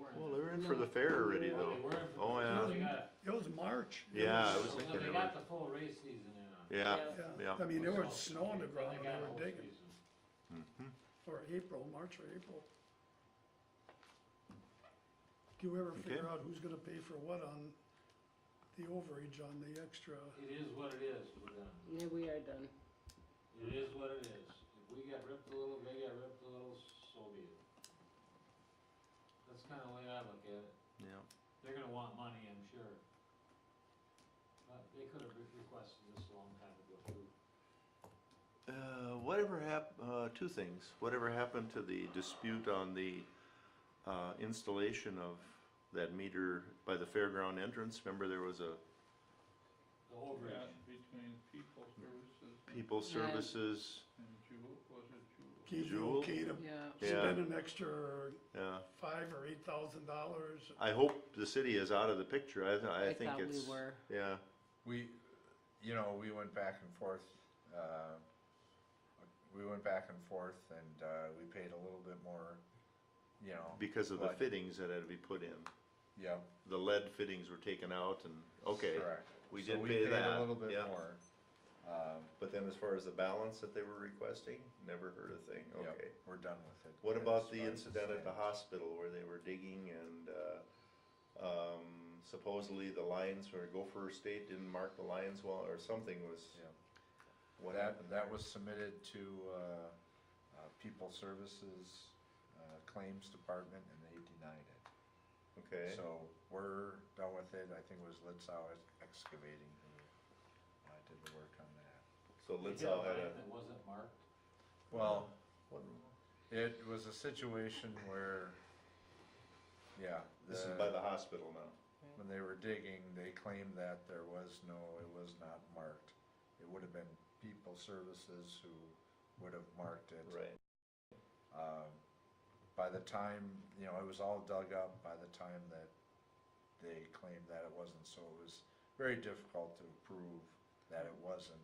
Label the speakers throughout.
Speaker 1: booked for the fair already though. Oh,
Speaker 2: Well,
Speaker 1: yeah,
Speaker 2: they got-
Speaker 3: It was March. It
Speaker 1: Yeah, it was
Speaker 2: well,
Speaker 1: thinking
Speaker 2: They
Speaker 1: it
Speaker 2: got
Speaker 1: was,
Speaker 2: the full race season in on.
Speaker 1: yeah,
Speaker 3: Yeah,
Speaker 1: yeah.
Speaker 3: I mean, there was
Speaker 2: So,
Speaker 3: snow on the
Speaker 2: they
Speaker 3: ground when
Speaker 2: got a
Speaker 3: they
Speaker 2: whole
Speaker 3: were digging,
Speaker 2: season.
Speaker 3: or April, March or April. Do you ever figure
Speaker 1: Okay.
Speaker 3: out who's gonna pay for what on the overage on the extra?
Speaker 2: It is what it is with them.
Speaker 4: Yeah, we are done.
Speaker 2: It is what it is. If we got ripped a little, they got ripped a little, so be it. That's kinda the way I look at it.
Speaker 1: yeah.
Speaker 2: They're gonna want money, I'm sure. But they could have requested this a long time ago too.
Speaker 1: Uh, whatever hap, uh, two things, whatever happened to the dispute on the, uh, installation of that meter by the fairground entrance? Remember there was a
Speaker 2: The overage.
Speaker 5: Between people services and
Speaker 1: people
Speaker 4: Yeah.
Speaker 1: services,
Speaker 5: Jewel, was it Jewel?
Speaker 3: Keith, you
Speaker 1: Jewel?
Speaker 3: okay to
Speaker 4: Yeah.
Speaker 1: Yeah.
Speaker 3: spend an extra
Speaker 1: yeah.
Speaker 3: five or eight thousand dollars?
Speaker 1: I hope the city is out of the picture, I, th- I think
Speaker 4: thought
Speaker 1: it's,
Speaker 4: we were.
Speaker 1: yeah,
Speaker 6: We, you know, we went back and forth, uh, we went back and forth and, uh, we paid a little bit more, you know.
Speaker 1: because of the
Speaker 6: but-
Speaker 1: fittings that had to be put in.
Speaker 6: Yep.
Speaker 1: The lead fittings were taken out and, okay,
Speaker 6: correct.
Speaker 1: we
Speaker 6: So
Speaker 1: did pay
Speaker 6: paid
Speaker 1: that,
Speaker 6: A little bit
Speaker 1: yeah.
Speaker 6: more. Um,
Speaker 1: But then as far as the balance that they were requesting, never heard a thing,
Speaker 6: yep,
Speaker 1: okay.
Speaker 6: We're done with it.
Speaker 1: What
Speaker 6: As
Speaker 1: about the
Speaker 6: far as
Speaker 1: incident at the
Speaker 6: stands.
Speaker 1: hospital where they were digging and, uh, um, supposedly the lines or Gopher State didn't mark the lines well, or something was,
Speaker 6: Yep.
Speaker 1: what happened?
Speaker 6: That, that was submitted to, uh, uh, People Services, uh, Claims Department and they denied it.
Speaker 1: Okay,
Speaker 6: So we're done with it, I think it was Litzau Excavating who uh, did the work on that.
Speaker 1: so
Speaker 2: They
Speaker 1: let's
Speaker 2: got a
Speaker 1: all had
Speaker 2: line
Speaker 1: a,
Speaker 2: That wasn't marked.
Speaker 6: Well,
Speaker 1: what-
Speaker 6: it was a situation where, yeah.
Speaker 1: this is by the hospital now,
Speaker 6: When they were digging, they claimed that there was no, it was not marked. It would have been People Services who would have marked it.
Speaker 1: right?
Speaker 6: Um, By the time, you know, it was all dug up by the time that they claimed that it wasn't, so it was very difficult to prove that it wasn't.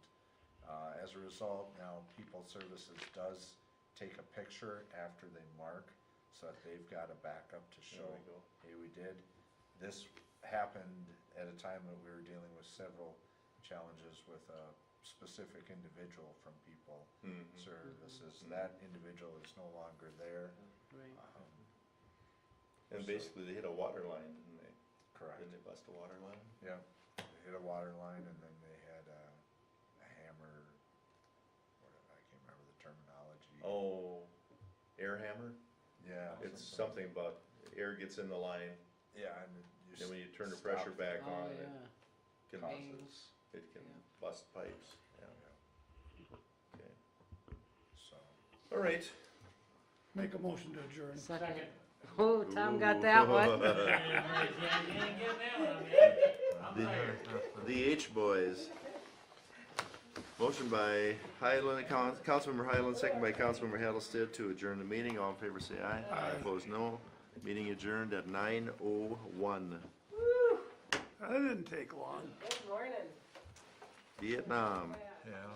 Speaker 6: Uh, As a result, now People Services does take a picture after they mark, so that they've got a backup to
Speaker 1: There
Speaker 6: show,
Speaker 1: we go.
Speaker 6: hey, we did. This happened at a time that we were dealing with several challenges with a specific individual from People
Speaker 1: Mhm.
Speaker 6: services, that individual is no longer there.
Speaker 4: Right.
Speaker 1: Uh-huh.
Speaker 6: Um,
Speaker 1: And
Speaker 6: So-
Speaker 1: basically they hit a water line, didn't they?
Speaker 6: Correct,
Speaker 1: Didn't they bust a water line?
Speaker 6: yeah. They hit a water line and then they had a a hammer, whatever, I can't remember the terminology.
Speaker 1: Oh, air hammer?
Speaker 6: Yeah.
Speaker 1: It's something about air gets in the line,
Speaker 6: Yeah, and you.
Speaker 1: then when you turn the
Speaker 6: stop
Speaker 1: pressure back
Speaker 4: Oh,
Speaker 1: on, it
Speaker 4: yeah.
Speaker 1: can,
Speaker 4: Bangs.
Speaker 1: it can
Speaker 4: Yeah.
Speaker 1: bust pipes, yeah, okay.
Speaker 6: So,
Speaker 1: All right.
Speaker 3: Make a motion to adjourn.
Speaker 4: Second.
Speaker 2: Second.
Speaker 4: Oh, Tom got that one.
Speaker 2: Yeah, you ain't getting that one, man. I'm tired.
Speaker 1: The H Boys. Motion by Highland, Coun- Councilmember Highland, second by Councilmember Hattlestead to adjourn the meeting. All in favor, say aye. Aye. Opposed, no. Meeting adjourned at nine oh one.
Speaker 3: That didn't take long.
Speaker 4: Good morning.
Speaker 1: Vietnam.
Speaker 6: yeah.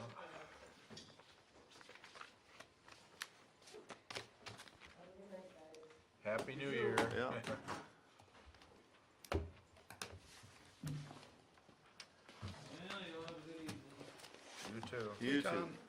Speaker 6: Happy New Year.
Speaker 1: Yeah.
Speaker 2: Well, you'll have a good evening.
Speaker 6: You too.
Speaker 1: You
Speaker 3: Tom.
Speaker 1: too.